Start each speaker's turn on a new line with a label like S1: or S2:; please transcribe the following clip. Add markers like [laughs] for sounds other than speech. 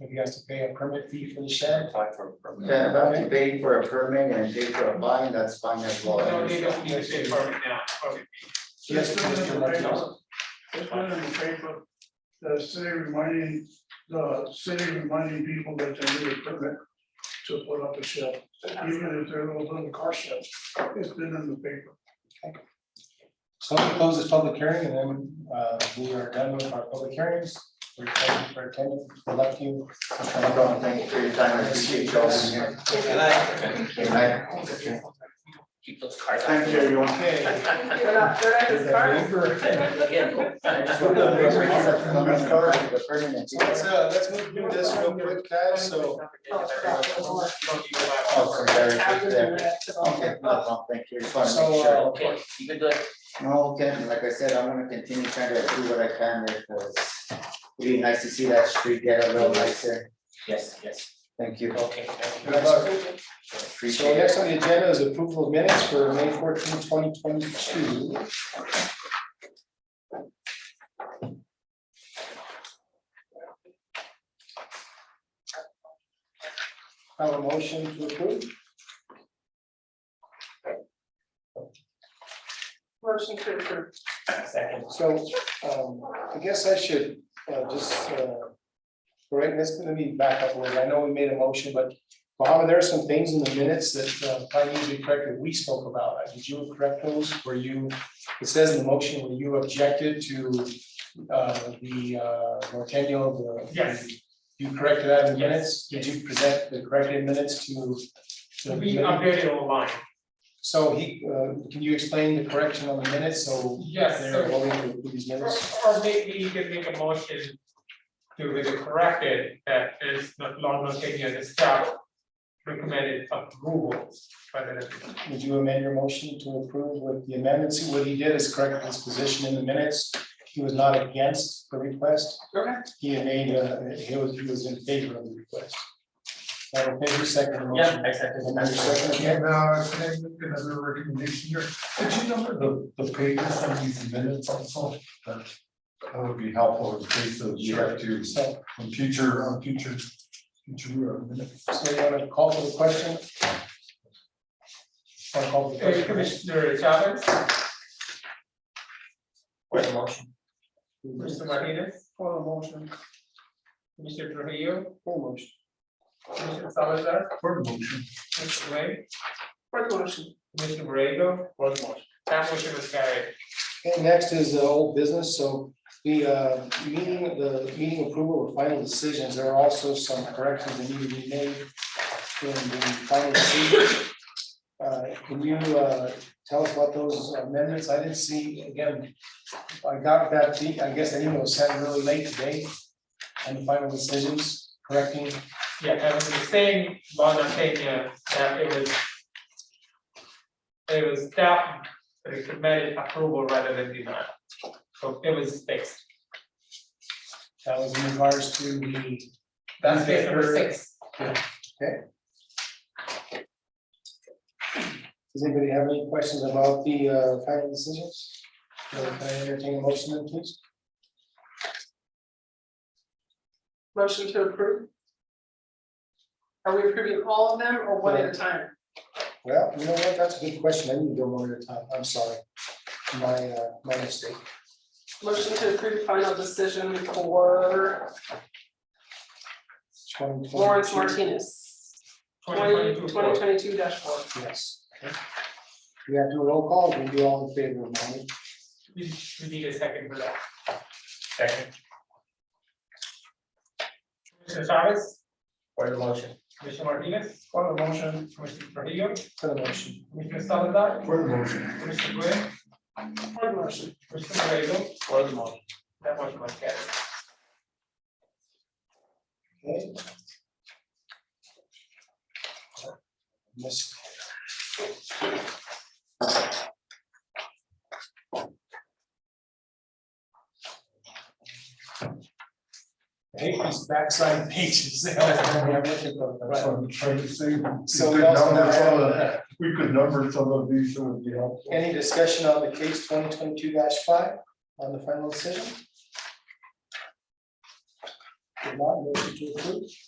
S1: If he has to pay a permit fee for the shed.
S2: Apply for a permit.
S3: Yeah, about to pay for a permit and pay for a fine, that's fine as well.
S4: No, they don't need to say permit now, permit.
S1: Yes, Mr. Martinez.
S5: Let's put it in the paper, the city reminding, the city reminding people that they need a permit to put up a shed, even if they're those little car sheds, it's been in the paper.
S1: So we close this public hearing and then uh, we are done with our public hearings. We're thank you for attending. We love you. Mr. Martinez.
S3: No problem, thank you for your time, I appreciate you all being here.
S6: Good night.
S3: Good night.
S6: Keep those cards. out.
S3: Thank you, everyone.
S7: They're not, they're
S1: Is
S7: not his
S1: there a
S7: cards.
S1: waiver?
S6: Again.
S3: I just want to remember here, I'm not sorry for the permit.
S1: Let's uh, let's move through this real quick, guys, so.
S7: Oh, that was one.
S3: Oh, sorry, very
S7: After
S3: good
S7: the
S3: there.
S7: rest of all.
S3: Okay, no, no, thank you, just want to
S1: So,
S3: make
S1: uh,
S3: sure.
S6: Okay, you can do it.
S3: No, Ken, like I said, I'm gonna continue trying to do what I can there, because it'd be nice to see that street get a little nicer.
S6: Yes, yes,
S3: Thank you,
S6: okay, thank you.
S1: Good luck. So
S3: appreciate
S1: next
S3: it.
S1: on the agenda is approval of minutes for May 14, 2022. Have a motion to approve?
S7: Motion to approve.
S6: Second.
S1: So um, I guess I should uh, just, uh, right, that's gonna be back up a little. I know we made a motion, but Mohammed, there are some things in the minutes that uh, if I usually corrected, we spoke about. Uh, Did you correct those? Were you, it says in the motion, were you objected to uh, the uh, Nortenyo, the?
S4: Yes.
S1: You corrected that in
S4: Yes,
S1: minutes? Did you present the corrected minutes to? to the
S4: We
S1: committee?
S4: updated online.
S1: So he, uh, can you explain the correction on the minutes? So
S4: Yes,
S1: they're
S4: so-
S1: voting to approve these
S4: Or
S1: minutes?
S4: or maybe you can make a motion to with the corrected that is not longer taking as a staff recommended approval by the.
S1: Would you amend your motion to approve with the amendments? What he did is correct his position in the minutes. He was not against the request.
S4: Correct.
S1: He had made, uh, he was, he was in favor of the request. Madam Favor, second the motion.
S6: Yeah, I second.
S1: And then your second again.
S5: uh, can I make another recommendation here? Could you number the, the pages on these minutes also? That that would be helpful in case of, you have to,
S1: So,
S5: in future, on future, future uh, minutes.
S1: so you want to call for the question? Want to call for the
S4: Uh,
S1: question?
S4: Commissioner Chavez,
S6: For the motion.
S4: Mr. Martinez,
S1: Call the motion.
S4: Mr. Trujillo,
S1: Call the motion.
S4: Mr. Salazar,
S5: For motion.
S4: Mr. Ray,
S7: For the motion.
S4: Mr. Borrego. For the motion. That motion was carried.
S1: Okay, next is uh, old business, so the uh, meeting, the meeting approval of final decisions, there are also some corrections that need to be made in the final decision. Uh, Can you uh, tell us about those amendments? I didn't see, again, I got that, the- I guess that email was sent really late today on the final decisions, correcting,
S4: Yeah, I was saying, while I'm saying, uh, that it was. It was staff recommended approval rather than denial. So it was fixed.
S1: that was in regards to the.
S4: That's case number six.
S1: Does anybody have any questions about the uh, final decisions? Uh, Can I entertain a motion then, please?
S7: Motion to approve. Are we approving all of them or one at a time?
S1: Well, you know what, that's a good question, I need to go one at a time, I'm sorry. My, uh, my mistake.
S7: Motion to approve final decision for
S1: 2022.
S7: Lawrence Martinez. 20
S4: 2022
S7: 2022 dash four.
S1: Yes. okay. We have to do a roll call, we'll be all in favor of Monty.
S4: We we need a second for that.
S6: Second.
S4: Commissioner Chavez,
S6: For the motion.
S4: Commissioner Martinez. For the motion. Commissioner Trujillo,
S1: for the motion.
S4: Commissioner Salazar,
S5: For the motion.
S4: Commissioner Gray,
S7: For the motion.
S4: Commissioner Borrego.
S6: For the motion.
S4: That motion was carried.
S1: Okay. Miss I hate these backside pages. [laughs] They always have me, I'm looking for them.
S5: That's what I'm trying to say.
S1: So
S5: We
S1: we
S5: could
S1: also
S5: number some of
S1: have
S5: the- we could number some of these, it would be helpful.
S1: any discussion on the case twenty twenty-two five on the final decision? If not, motion to approve.